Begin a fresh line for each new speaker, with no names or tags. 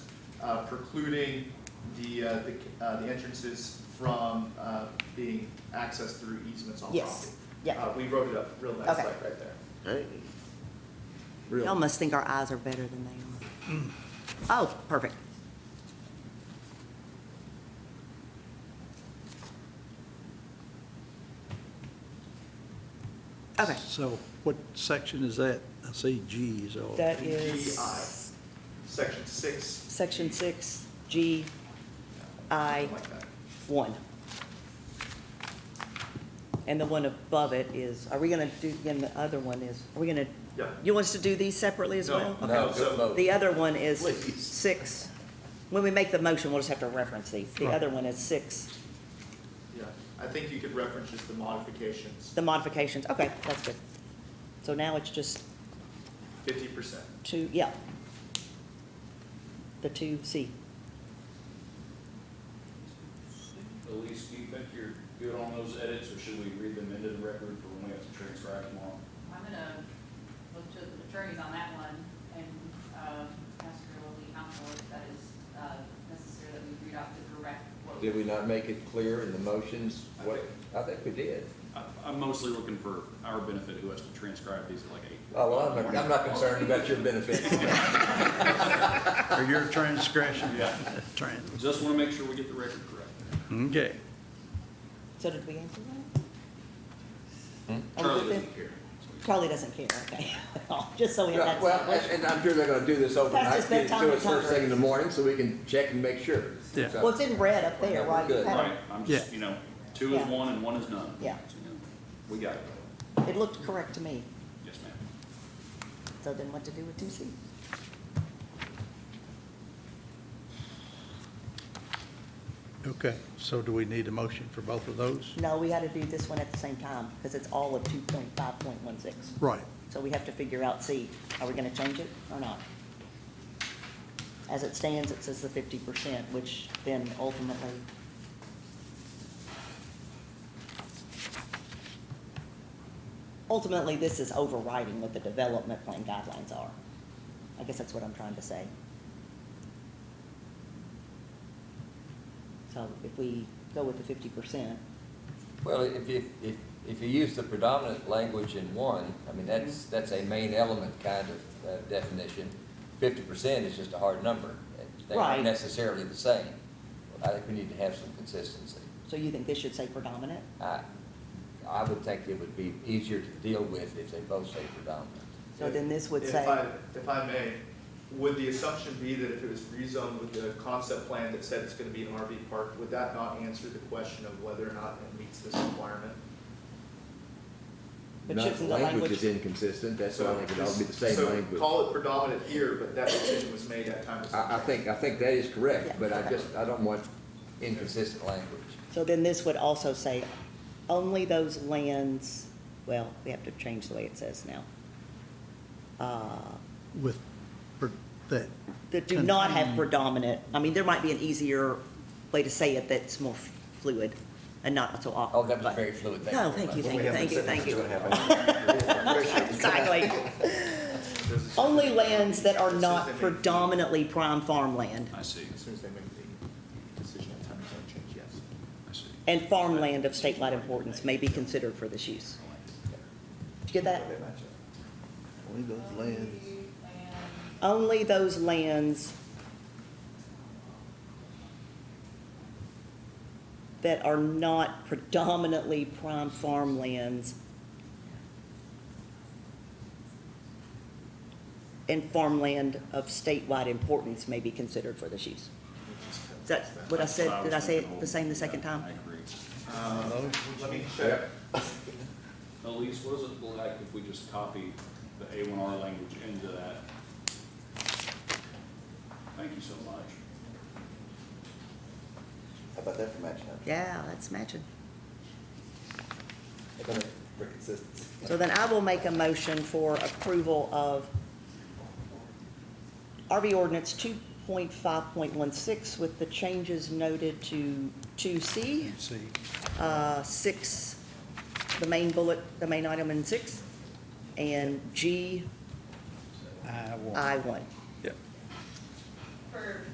uh, precluding the, uh, the, uh, the entrances from, uh, being accessed through easements on property.
Yes, yeah.
Uh, we wrote it up real nice,
Okay.
like right there.
Hey,
Y'all
Real.
must think our eyes are better than they
Mm.
are. Oh, perfect. Okay,
So what section is that? I see G is all.
That
GI.
is
Section six,
section six, G, I,
something like that.
one. And the one above it is, are we gonna do, and the other one is, are we gonna,
Yeah.
you want us to do these separately as
No,
well?
no, No, so- no.
The other one is
Please.
six, when we make the motion, we'll just have to reference these. The
Right.
other one is six,
Yeah, I think you could reference just the modifications,
the modifications, okay, that's good. So now it's just
fifty percent.
two, yeah. The two C.
Elise, do you think you're good on those edits, or should we read them into the record for when we have to transcribe tomorrow?
I'm gonna look to the attorneys on that one and, um, ask her what the counsel if that is, uh, necessary that we read out the direct quote.
Did we not make it clear in the motions? What, I think we did.
I, I'm mostly looking for our benefit, who has to transcribe these at like eight.
Oh, well, I'm not, I'm not concerned about your benefit.
Or your transgression?
Yeah.
Trans,
Just wanna make sure we get the record correct.
okay.
So did we answer that? Oh,
Charlie
did they?
doesn't care.
Charlie doesn't care, okay. Just so we have that.
Well, and and I'm sure they're gonna do this overnight,
his
get it
bedtime
to us first thing in the
cover.
morning, so we can check and make sure.
Yeah.
So-
Well, it's in red up there,
Okay,
right?
good.
Right, I'm just,
Yeah.
you know, two is
Yeah.
one and one is none.
Yeah.
So, you know, We got it.
It looked correct to me,
Yes, ma'am.
so then what to do with two C?
Okay, so do we need a motion for both of those?
No, we had to do this one at the same time, because it's all of two point five point one six.
Right,
So we have to figure out, C, are we gonna change it or not? As it stands, it says the fifty percent, which then ultimately, ultimately, this is overriding what the development plan guidelines are. I guess that's what I'm trying to say. So if we go with the fifty percent,
Well, if you, if, if you use the predominant language in one, I mean, that's,
Mm-hmm.
that's a main element kind of uh, definition. Fifty percent is just a hard number. They're
Right.
not necessarily the same. I think we need to have some consistency.
so you think this should say predominant?
I, I would think it would be easier to deal with if they both say predominant.
So then this would
If
say.
I- If I may, would the assumption be that if it was rezoned with the concept plan that said it's gonna be an RV park, would that not answer the question of whether or not it meets this requirement?
But
Not-
shouldn't the
Language
language-
is inconsistent, that's why I think it ought to be the same
So
language.
Call it predominant here, but that decision was made at time of.
I, I think, I think that is
Yeah,
correct, but I
okay.
just, I don't want inconsistent language.
So then this would also say, only those lands, well, we have to change the way it says now. Uh,
with per- that.
That do not have predominant, I mean, there might be an easier way to say it that's more fluid and not so
Oh,
awkward.
that was
but-
very fluid. Thank you
No,
very
thank you,
much.
thank you, thank you, thank you. Exactly.
There's a-
Only lands that are not
As soon as they make-
predominantly prime farmland
I see,
As soon as they make the decision at time of zone change, yes.
I see.
and farmland of statewide importance may be considered for this use. Did you get that?
They match up.
Only those lands.
And
only those lands that are not predominantly prime farmlands and farmland of statewide importance may be considered for this use. Is that what I said, did I say it the same the second
I
time?
agree.
Um, Let me check.
Elise, what does it look like if we just copy the A one R language into that? Thank you so much.
How about that for matching up?
Yeah, that's matching.
How about that for consistency?
So then I will make a motion for approval of RV ordinance two point five point one six with the changes noted to two C,
See,
uh, six, the main bullet, the main item in six, and G
I want.
I one.
Yep.
for